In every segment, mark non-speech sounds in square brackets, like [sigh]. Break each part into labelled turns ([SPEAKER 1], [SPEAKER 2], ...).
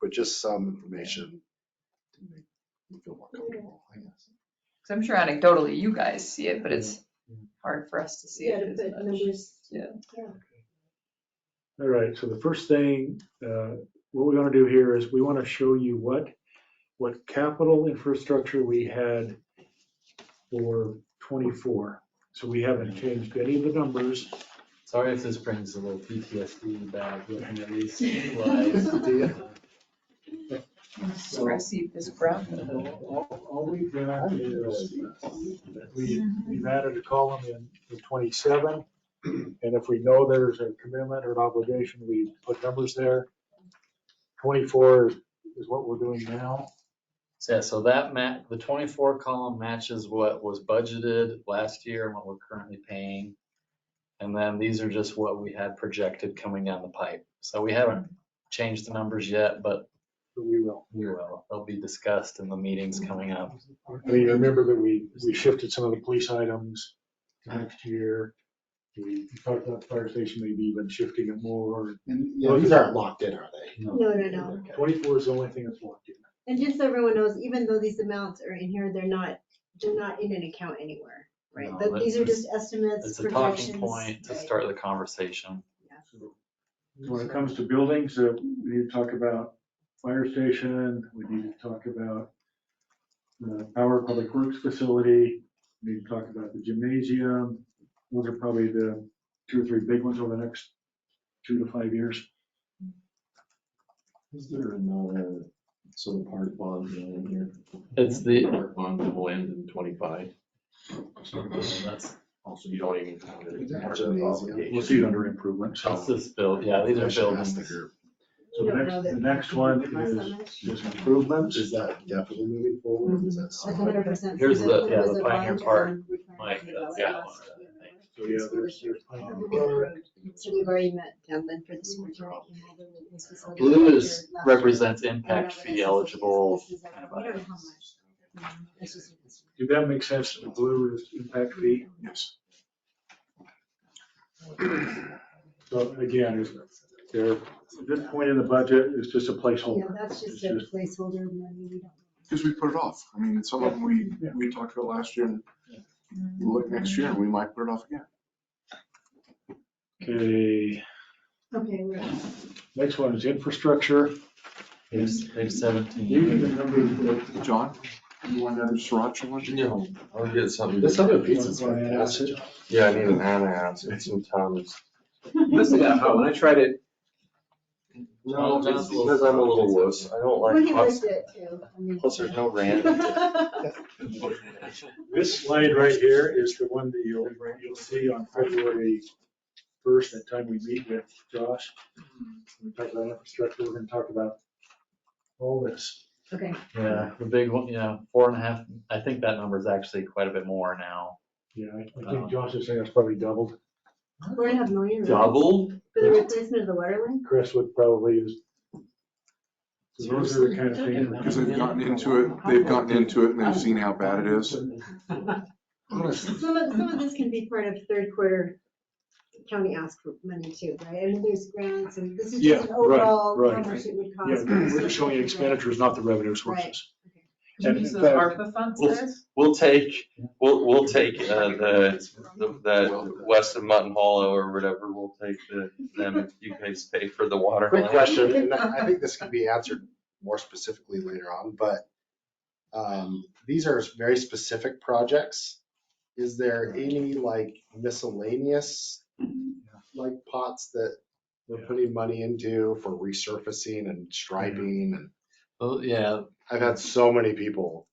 [SPEAKER 1] but just some information to make you feel more comfortable, I guess.
[SPEAKER 2] Because I'm sure anecdotally you guys see it, but it's hard for us to see
[SPEAKER 3] Yeah,
[SPEAKER 2] it
[SPEAKER 3] to
[SPEAKER 2] as
[SPEAKER 3] put
[SPEAKER 2] much.
[SPEAKER 3] numbers.
[SPEAKER 2] Yeah.
[SPEAKER 4] All right, so the first thing, uh, what we want to do here is we want to show you what, what capital infrastructure we had for 24. So we haven't changed any of the numbers.
[SPEAKER 5] Sorry if this brings a little PTSD back, looking at these
[SPEAKER 1] [laughs]
[SPEAKER 5] slides.
[SPEAKER 2] Expressive is brown.
[SPEAKER 4] All all we've done is we,
[SPEAKER 3] Mm-hmm.
[SPEAKER 4] we've added a column in in 27. And if we know there's a commitment or an obligation, we put numbers there. 24 is what we're doing now.
[SPEAKER 5] So, yeah, so that ma, the twenty-four column matches what was budgeted last year and what we're currently paying. And then these are just what we had projected coming down the pipe. So we haven't changed the numbers yet, but
[SPEAKER 4] but we will.
[SPEAKER 5] we will. They'll be discussed in the meetings coming up.
[SPEAKER 4] I mean, remember that we, we shifted some of the police items to next year. We talked about the fire station maybe even shifting it more.
[SPEAKER 1] And, you know, these aren't locked in, are they?
[SPEAKER 3] No, no, no.
[SPEAKER 1] Okay.
[SPEAKER 4] Twenty-four is the only thing that's locked in.
[SPEAKER 3] And just so everyone knows, even though these amounts are in here, they're not, they're not in an account anywhere, right?
[SPEAKER 5] No,
[SPEAKER 3] But
[SPEAKER 5] but
[SPEAKER 3] These are
[SPEAKER 5] it's-
[SPEAKER 3] just estimates,
[SPEAKER 5] It's a talking
[SPEAKER 3] projections.
[SPEAKER 5] point to
[SPEAKER 3] right.
[SPEAKER 5] start the conversation.
[SPEAKER 4] When it comes to buildings, uh, we need to talk about fire station, we need to talk about uh, our public works facility, we need to talk about the gymnasium. Those are probably the two or three big ones over the next two to five years.
[SPEAKER 6] Is there another, so the park bond deal in here?
[SPEAKER 5] It's the,
[SPEAKER 6] Park bond will end in twenty-five,
[SPEAKER 5] that's,
[SPEAKER 6] also you don't even count it as part of the
[SPEAKER 1] Gymnasium.
[SPEAKER 4] We'll
[SPEAKER 6] obligation.
[SPEAKER 4] see it under improvements.
[SPEAKER 5] that's this build, yeah, these are
[SPEAKER 1] I should ask the
[SPEAKER 5] buildings.
[SPEAKER 1] group,
[SPEAKER 4] So
[SPEAKER 3] We
[SPEAKER 4] the
[SPEAKER 3] don't
[SPEAKER 4] next,
[SPEAKER 3] know
[SPEAKER 4] the
[SPEAKER 3] that-
[SPEAKER 4] next
[SPEAKER 3] Not
[SPEAKER 4] one
[SPEAKER 3] so
[SPEAKER 4] is,
[SPEAKER 3] much.
[SPEAKER 4] is improvements.
[SPEAKER 1] Is that definitely moving forward? Is that
[SPEAKER 3] A
[SPEAKER 1] something?
[SPEAKER 3] hundred percent.
[SPEAKER 5] Here's
[SPEAKER 3] because
[SPEAKER 5] the-
[SPEAKER 3] it
[SPEAKER 5] yeah,
[SPEAKER 3] was
[SPEAKER 5] the
[SPEAKER 3] a
[SPEAKER 5] Pioneer
[SPEAKER 3] bond
[SPEAKER 5] Park,
[SPEAKER 3] on requirement
[SPEAKER 5] Mike,
[SPEAKER 3] that
[SPEAKER 5] that's
[SPEAKER 3] was
[SPEAKER 5] that
[SPEAKER 3] last
[SPEAKER 5] one, I think.
[SPEAKER 4] So yeah, there's, there's.
[SPEAKER 3] year. So we've already met Devlin for the school. district and all the meetings facility
[SPEAKER 5] Blue is,
[SPEAKER 3] manager last year.
[SPEAKER 5] represents impact fee eligible.
[SPEAKER 3] This is like-
[SPEAKER 5] kind of
[SPEAKER 3] we don't know how
[SPEAKER 5] items.
[SPEAKER 3] much, though. It's just- it's-
[SPEAKER 4] Did that make sense? The blue is impact fee.
[SPEAKER 1] Yes.
[SPEAKER 4] So again, is there, this point in the budget is just a
[SPEAKER 3] Yeah,
[SPEAKER 4] placeholder.
[SPEAKER 3] that's just
[SPEAKER 4] It's
[SPEAKER 3] a
[SPEAKER 4] just-
[SPEAKER 3] placeholder money, we don't.
[SPEAKER 7] Because we put it off. I mean, it's something we,
[SPEAKER 4] Yeah.
[SPEAKER 7] we talked about last year and we'll look next year and we might put it off again.
[SPEAKER 4] Okay,
[SPEAKER 3] Okay, we're,
[SPEAKER 4] next one is infrastructure.
[SPEAKER 5] Page page
[SPEAKER 4] These are
[SPEAKER 5] seventeen.
[SPEAKER 4] the numbers that-
[SPEAKER 7] John, you want another sriracha one?
[SPEAKER 6] No, I'll get something.
[SPEAKER 1] This other piece is fantastic.
[SPEAKER 6] Yeah, I need an ananas, it's in Tom's.
[SPEAKER 8] Listen to that, when I tried it,
[SPEAKER 6] No, it's because I'm a little wuss, I don't
[SPEAKER 3] we're
[SPEAKER 6] like
[SPEAKER 3] gonna
[SPEAKER 6] plus,
[SPEAKER 3] list it too. I mean- [laughs]
[SPEAKER 6] plus there's no rand.
[SPEAKER 1] [laughs]
[SPEAKER 4] This slide right here is the one that you'll, you'll see on February first, that time we meet with Josh. We talk about infrastructure, we're gonna talk about all this.
[SPEAKER 3] Okay,
[SPEAKER 5] Yeah, the big one, yeah, four and a half, I think that number is actually quite a bit more now.
[SPEAKER 4] Yeah, I I think Josh is saying it's probably doubled.
[SPEAKER 3] four and a half million. right?
[SPEAKER 6] Double?
[SPEAKER 3] For the replacement of the water line?
[SPEAKER 4] Crestwood probably is. So those are the kind of things. we're
[SPEAKER 7] Because they've gotten into it, they've gotten into it and they've seen how bad it is.
[SPEAKER 1] Honestly,
[SPEAKER 3] Some of, some of this can be part of third quarter county ask for money too, right? I mean, there's grants and this is
[SPEAKER 4] Yeah,
[SPEAKER 3] just an
[SPEAKER 4] right,
[SPEAKER 3] overall how
[SPEAKER 4] right.
[SPEAKER 3] much it would
[SPEAKER 4] Yeah,
[SPEAKER 3] cost.
[SPEAKER 4] we're just showing expenditures, not the revenue sources.
[SPEAKER 2] Can you use those
[SPEAKER 4] And in fact-
[SPEAKER 2] ARPA funds
[SPEAKER 6] Well,
[SPEAKER 2] there?
[SPEAKER 6] We'll take, we'll, we'll take, uh, the, the, the west of Mutton Hollow or whatever, we'll take the, them, if you guys pay for the water.
[SPEAKER 1] Quick
[SPEAKER 6] line.
[SPEAKER 1] question, and I think this can be answered more specifically later on, but um, these are very specific projects. Is there any like miscellaneous, like pots that we're putting money into for resurfacing and striping? And
[SPEAKER 5] Well, yeah,
[SPEAKER 1] I've had so many people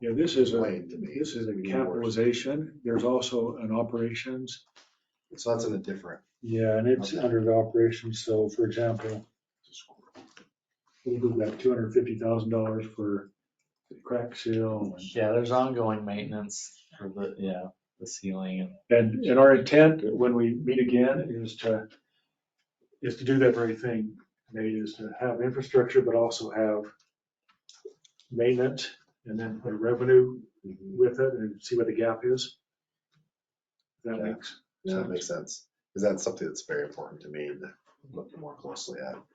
[SPEAKER 4] Yeah, this is a,
[SPEAKER 1] complain to me.
[SPEAKER 4] this is a capitalization. There's also an operations.
[SPEAKER 1] So that's in a different,
[SPEAKER 4] Yeah, and it's under the operations. So for example, we'll do that two hundred fifty thousand dollars for crack seal. and-
[SPEAKER 5] yeah, there's ongoing maintenance for the, yeah, the ceiling and
[SPEAKER 4] And, and our intent when we meet again is to, is to do that very thing. Nate, is to have infrastructure, but also have maintenance and then put revenue with it and see what the gap is. That makes
[SPEAKER 1] if that
[SPEAKER 4] sense.
[SPEAKER 1] makes sense. Because that's something that's very important to me to look more closely at.